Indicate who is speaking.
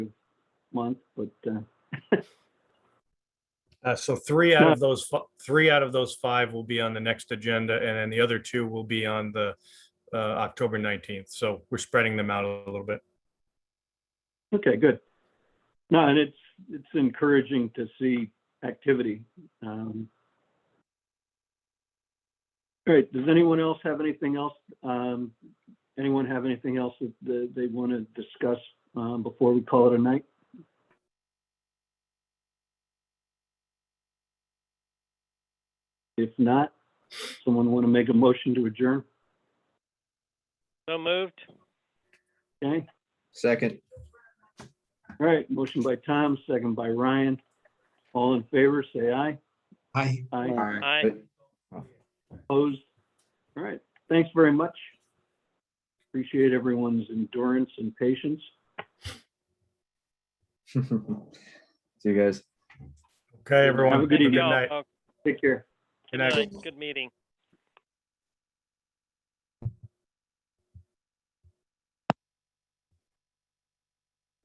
Speaker 1: month, but, uh,
Speaker 2: Uh, so three out of those, fi- three out of those five will be on the next agenda and then the other two will be on the uh, October 19th. So we're spreading them out a little bit.
Speaker 1: okay, good. No, and it's, it's encouraging to see activity. Um, All right, does anyone else have anything else? um, Anyone have anything else that- that they want to discuss um, before we call it a night? If not, someone want to make a motion to adjourn?
Speaker 3: So moved.
Speaker 1: Okay,
Speaker 4: Second,
Speaker 1: all right, motion by Tom, second by Ryan. All in favor, say aye.
Speaker 5: Aye.
Speaker 1: Aye,
Speaker 4: Aye.
Speaker 3: Aye.
Speaker 1: opposed. All right, thanks very much. Appreciate everyone's endurance and patience.
Speaker 4: see you guys.
Speaker 2: Okay, everyone.
Speaker 1: Have a good
Speaker 2: Have a
Speaker 1: evening.
Speaker 3: Y'all,
Speaker 2: night.
Speaker 3: oh,
Speaker 1: Take care.
Speaker 2: Good night.
Speaker 3: Good meeting.